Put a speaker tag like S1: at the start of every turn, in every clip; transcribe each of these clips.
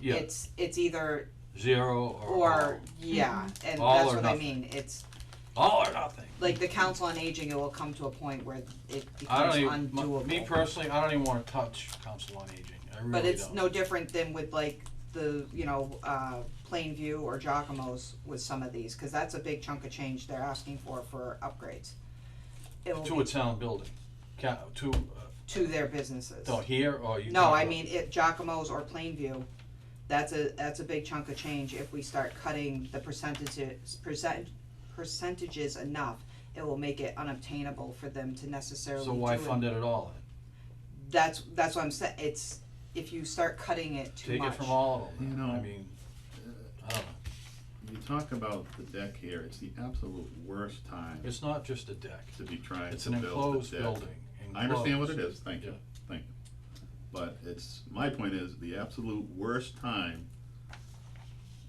S1: Yeah.
S2: it's, it's either
S1: Zero or all,
S2: or, yeah, and
S1: All
S2: that's
S1: or
S2: what I
S1: nothing.
S2: mean, it's,
S1: all oh, or nothing.
S2: like, the council on aging, it will come to a point where it
S1: I
S2: becomes
S1: don't
S2: undoable.
S1: even, m- me personally, I don't even wanna touch council on aging, I really don't.
S2: But it's no different than with like the, you know, uh, Plainview or Giacomo's with some of these, cause that's a big chunk of change they're asking for, for upgrades. It will
S1: To
S2: be
S1: a town building, ca- to, uh,
S2: to their businesses.
S1: no, here or you.
S2: No,
S1: talking
S2: I
S1: about-
S2: mean, if Giacomo's or Plainview, that's a, that's a big chunk of change, if we start cutting the percentages, percent, percentages enough, it will make it unobtainable for them to necessarily
S1: So why
S2: do it.
S1: fund it at all
S2: That's, that's what I'm saying, it's, if you start cutting it too
S1: then? Take
S2: much.
S1: it from all of
S3: You
S1: them,
S3: know,
S1: I mean, I don't know,
S3: You talk about the deck here, it's the absolute worst time
S1: it's not just a deck,
S3: to be trying
S1: it's
S3: to
S1: an
S3: build a
S1: enclosed
S3: deck.
S1: building,
S3: I understand what it
S1: enclosed.
S3: is, thank you, thank you. But it's, my point is, the absolute worst time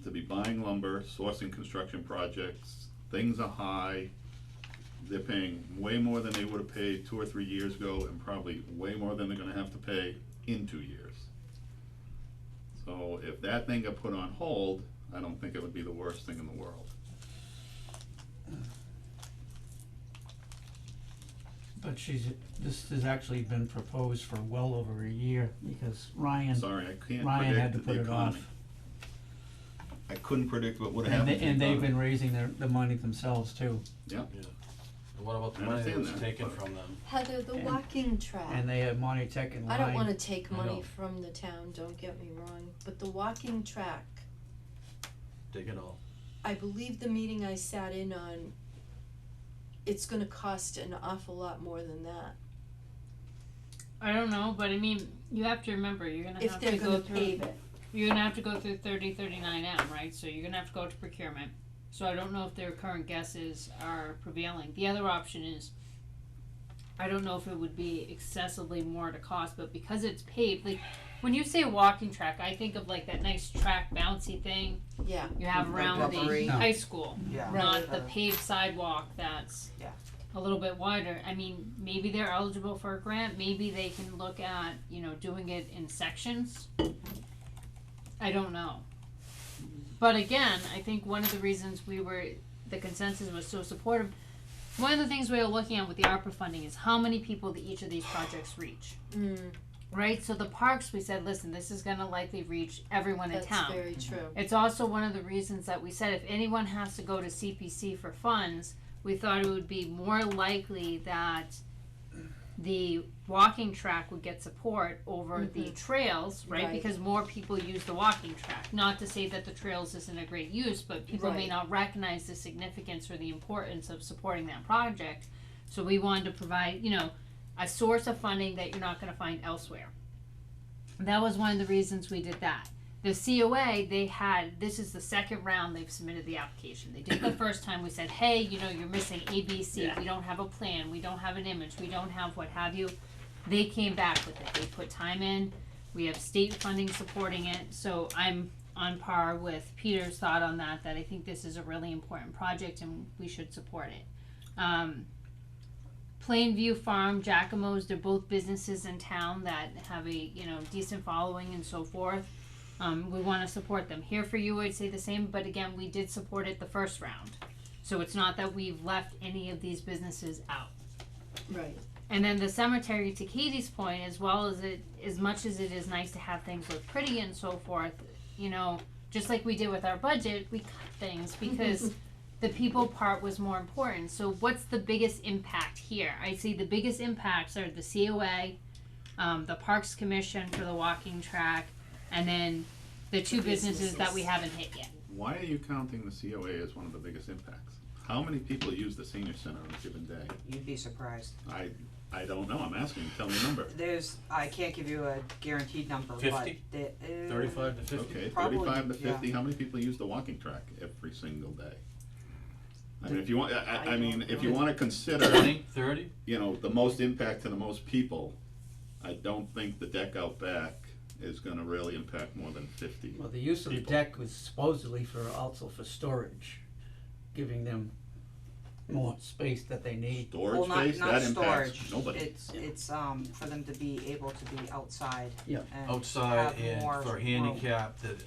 S3: to be buying lumber, sourcing construction projects, things are high. They're paying way more than they would have paid two or three years ago, and probably way more than they're gonna have to pay in two years. So if that thing got put on hold, I don't think it would be the worst thing in the world.
S4: But she's, this has actually been proposed for well over a year, because Ryan,
S3: Sorry, I can't
S4: Ryan had to
S3: predict the
S4: put it off.
S3: economy. I couldn't predict what would
S4: And
S3: happen to
S4: they,
S3: the
S4: and they've
S3: economy.
S4: been raising their, the money themselves too,
S1: And what about the
S3: I
S1: money that
S3: understand
S1: was
S3: that,
S1: taken
S3: but-
S1: from them?
S5: Heather, the
S4: And-
S5: walking track.
S4: and they have Monty Tech and
S5: I
S4: Ryan.
S5: don't wanna take
S1: I
S5: money
S1: know.
S5: from the town, don't get me wrong, but the walking track,
S1: Take it all,
S5: I believe the meeting I sat in on, it's gonna cost an awful lot more than that.
S6: I don't know, but I mean, you have to remember you're gonna
S5: If
S6: have
S5: they're
S6: to go
S5: gonna
S6: through.
S5: pave it,
S6: You're gonna have to go through thirty thirty nine M, right? So you're gonna have to go to procurement. So I don't know if their current guesses are prevailing. The other option is, I don't know if it would be excessively more to cost, but because it's paved, like when you say walking track, I think of like that nice track bouncy thing
S5: yeah,
S6: you have
S2: Like
S6: around
S2: rubbery.
S6: the
S4: No.
S6: high school,
S2: Yeah.
S6: not the
S2: Uh,
S6: paved sidewalk that's
S2: Yeah.
S6: a little bit wider. I mean, maybe they're eligible for a grant. Maybe they can look at you know doing it in sections. I don't know. But again, I think one of the reasons we were the consensus was so supportive. One of the things we were looking at with the ARPA funding is how many people that each of these projects reach,
S5: mm,
S6: right? So the parks, we said, listen, this is going to likely reach everyone in
S5: that's
S6: town.
S5: very true.
S6: It's also one of the reasons that we said if anyone has to go to CPC for funds, we thought it would be more likely that the walking track would get support over the trails, right?
S5: Right.
S6: Because more people use the walking track. Not to say that the trails isn't a great use, but people may
S5: Right.
S6: not recognize the significance or the importance of supporting that project. So we wanted to provide, you know, a source of funding that you're not going to find elsewhere. That was one of the reasons we did that. The COA, they had, this is the second round they've submitted the application. They did the first time, we said, hey, you know, you're missing A, B, C. We don't have a plan, we don't have an image, we don't have what have you. They came back with it. They put time in. We have state funding supporting it. So I'm on par with Peter's thought on that, that I think this is a really important project and we should support it. Um, Plainview Farm, Giacomo's, they're both businesses in town that have a, you know, decent following and so forth. Um, we want to support them. Here for you, I'd say the same, but again, we did support it the first round. So it's not that we've left any of these businesses out.
S5: Right.
S6: And then the cemetery, to Katie's point, as well as it, as much as it is nice to have things look pretty and so forth, you know, just like we did with our budget, we cut things because the people part was more important. So what's the biggest impact here? I see the biggest impacts are the COA, um, the Parks Commission for the walking track, and then the two businesses that we haven't hit yet.
S3: Why are you counting the COA as one of the biggest impacts? How many people use the senior center on a given day?
S2: You'd be surprised.
S3: I, I don't know, I'm asking, tell me a number.
S2: There's, I can't give you a guaranteed number, but
S1: 50?
S2: the, uh,
S1: thirty-five to fifty?
S3: Okay,
S2: Probably,
S3: thirty-five to
S2: yeah.
S3: fifty, how many people use the walking track every single day? I mean, if you want, I, I- I mean, if you wanna consider,
S1: Twenty, thirty?
S3: you know, the most impact to the most people, I don't think the deck out back is gonna really impact more than fifty.
S4: Well, the use of the
S3: people.
S4: deck was supposedly for, also for storage, giving them more space that they need.
S3: Storage
S2: Well, not,
S3: space,
S2: not
S3: that impacts
S2: storage,
S3: nobody.
S2: it's, it's, um, for them to be able to be outside
S4: Yeah.
S2: and
S1: outside
S2: have
S1: and
S2: more
S1: for
S2: room.
S1: handicap that